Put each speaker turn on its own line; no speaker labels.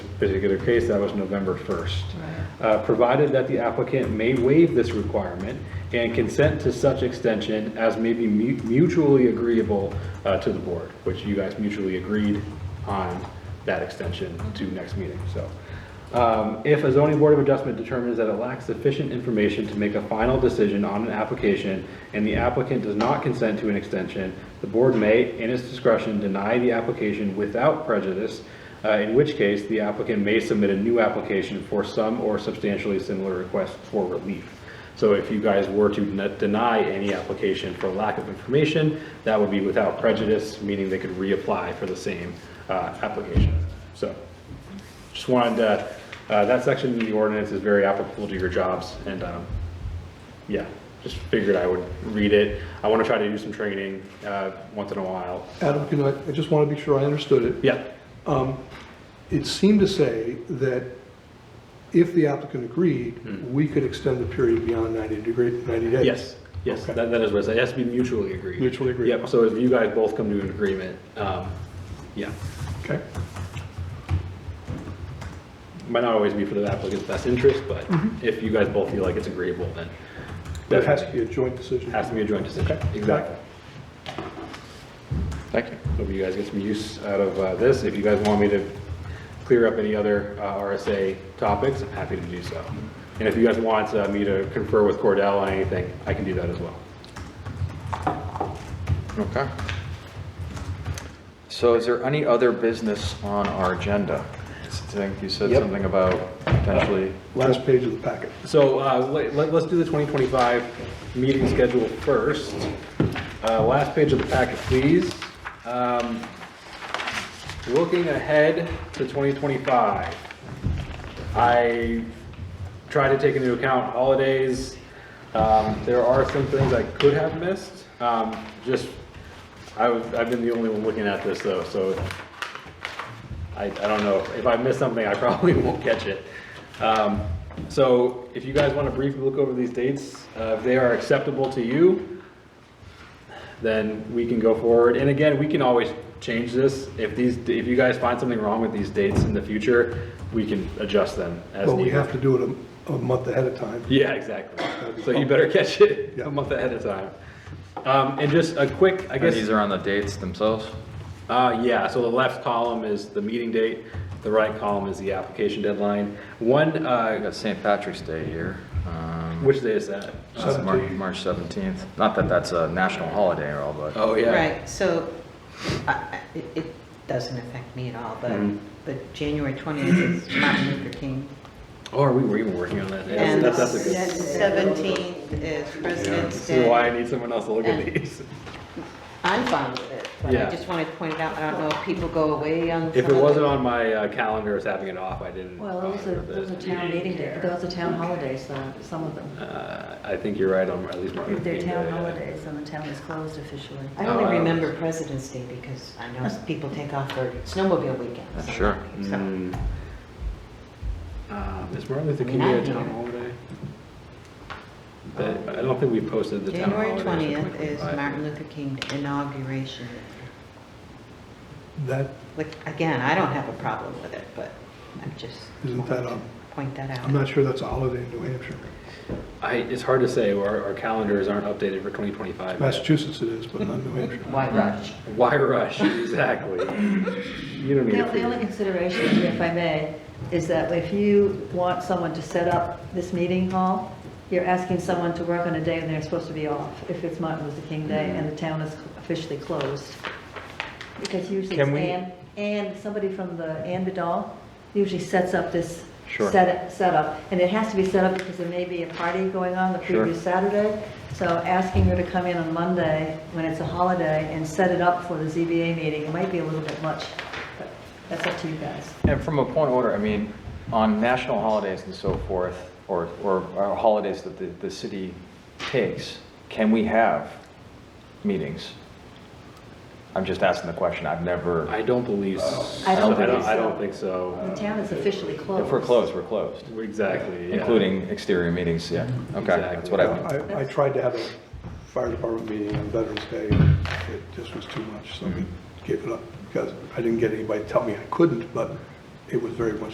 particular case, that was November 1st.
Right.
Uh, Provided that the applicant may waive this requirement and consent to such extension as may be mu- mutually agreeable uh, to the board, which you guys mutually agreed on that extension to next meeting, so. Um, If a zoning board of adjustment determines that it lacks sufficient information to make a final decision on an application and the applicant does not consent to an extension, the board may, in its discretion, deny the application without prejudice, uh, in which case the applicant may submit a new application for some or substantially similar request for relief. So if you guys were to ne- deny any application for lack of information, that would be without prejudice, meaning they could reapply for the same uh, application. So just wanted to, uh, that section in the ordinance is very applicable to your jobs and, um, yeah, just figured I would read it. I want to try to do some training uh, once in a while.
Adam, can I, I just want to be sure I understood it.
Yeah,
It seemed to say that if the applicant agreed, we could extend the period beyond 90 degree, 90 days.
Hmm. yes, yes,
Okay.
that that is what it said. It has to be mutually agreed.
Mutually agreed.
Yep, so if you guys both come to an agreement, um, yeah.
Okay.
Might not always be for the applicant's best interest, but if you guys both feel like it's agreeable, then.
That Mm-hmm. has to be a joint decision.
Has to be a joint decision.
Okay.
Exactly.
Thank you.
Hope you guys get some use out of uh, this. If you guys want me to clear up any other uh, RSA topics, I'm happy to do so. And if you guys want uh, me to confer with Cordell on anything, I can do that as well.
Okay. So is there any other business on our agenda? I think you said
Yep.
something about potentially,
Last page of the packet.
So uh, let- let- let's do the 2025 meeting schedule first. Uh, Last page of the packet, please. Um, Looking ahead to 2025, I try to take into account holidays. Um, There are some things I could have missed. Um, Just, I was- I've been the only one looking at this though, so I, I don't know, if I miss something, I probably won't catch it. Um, So if you guys want to briefly look over these dates, uh, if they are acceptable to you, then we can go forward. And again, we can always change this. If these, if you guys find something wrong with these dates in the future, we can adjust them as
But
needed.
we have to do it a, a month ahead of time.
Yeah, exactly. So you better catch it
Yeah.
a month ahead of time. Um, and just a quick, I guess.
these are on the dates themselves?
Uh, yeah, so the left column is the meeting date, the right column is the application deadline. One,
I
uh,
got St. Patrick's Day here. um,
which day is that?
that's Mar-
Seventeenth.
March 17th. Not that that's a national holiday or all, but
Oh, yeah.
Right, so I- I- it it doesn't affect me at all, but,
Mhm.
but January 20th is Martin Luther King.
Oh, are we, we're even working on that? Yeah,
And
That's, that's a good, this
17th is President's
is why
Day.
I need someone else to look at these.
I'm fine with it, but
Yeah.
I just wanted to point it out, I don't know if people go away on some
If it
other-
wasn't on my uh, calendar as having it off, I didn't.
Well, those are,
remember
those are
that.
town meeting days, those are town holidays, though, some of them.
Uh, I think you're right on, at least Martin Luther
They're
King
town
Day.
holidays, and the town is closed officially.
I
Oh, I
only
don't-
remember President's Day because I know people take off for snowmobile weekends. and
Sure.
that, so.
Mm. Uh, Is Martin Luther
I
King
mean,
Day a
I'm
town
here.
holiday? That- I don't think we posted the town
January
holidays. for
20th is
2025.
Martin Luther King inauguration.
That,
Like, again, I don't have a problem with it, but I'm just.
Isn't that
wanting to Point that
I'm
out.
not sure that's a holiday in New Hampshire.
I, it's hard to say, our, our calendars aren't updated for 2025.
Massachusetts it is, but not New Hampshire.
Why rush?
Why rush, exactly? You don't need
Now, the only
to.
consideration, if I may, is that if you want someone to set up this meeting hall, you're asking someone to work on a day when they're supposed to be off, if it's Martin Luther King Day and the town is officially closed. Because usually it's
Can we-
Ann, Ann, somebody from the, Ann Vidal, usually sets up this
Sure.
set- setup. And it has to be set up because there may be a party going on the
Sure.
previous Saturday. So asking her to come in on Monday, when it's a holiday, and set it up for the ZBA meeting, it might be a little bit much, but that's up to you guys.
And from a point of order, I mean, on national holidays and so forth, or, or or holidays that the, the city takes, can we have meetings? I'm just asking the question. I've never,
I don't believe, s-
I don't
I don't,
believe
I don't
so.
think
The
so.
town is officially closed.
if we're closed, we're closed,
Exactly, yeah.
including exterior meetings, yeah. Okay, that's what I,
I, I tried to have a fire department meeting on Veterans Day, and it just was
Hmm.
too much, so we gave it up, because I didn't get anybody to tell me I couldn't, but it was very much